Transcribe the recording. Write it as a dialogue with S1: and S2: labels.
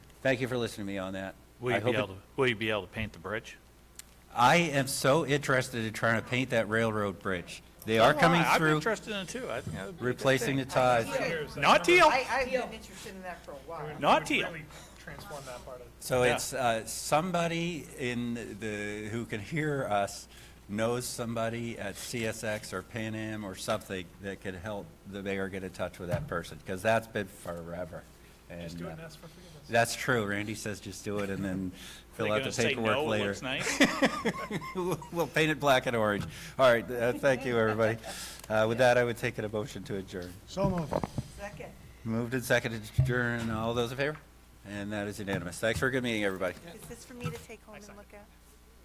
S1: Thank you for listening to me on that.
S2: Will
S1: I
S2: you be
S1: hope it-
S2: able, to? will you be able to paint the bridge?
S1: I am so interested in trying to paint that railroad bridge. They
S2: Oh,
S1: are coming
S2: I'm
S1: through,
S2: interested in it too. I think that would be a good
S1: replacing the
S2: thing.
S1: ties.
S2: Not deal,
S3: I, I've been interested in that for a while.
S2: not deal.
S4: Really transform that part of.
S1: So
S2: Yeah.
S1: it's uh, somebody in the, who can hear us knows somebody at CSX or Pan Am or something that could help the mayor get in touch with that person, because that's been forever.
S4: Just
S1: And
S4: do it
S1: uh,
S4: and ask for forgiveness.
S1: that's true. Randy says just do it and then
S2: They're
S1: fill out the
S2: gonna say
S1: paperwork
S2: no, it
S1: later.
S2: looks nice.
S1: We'll paint it black and orange. All right, uh, thank you, everybody. Uh, With that, I would take it a motion to adjourn.
S5: So moved.
S3: Second.
S1: Moved and seconded to adjourn. All those in favor? And that is unanimous. Thanks for a good meeting, everybody.
S3: Is this for me to take home and look at?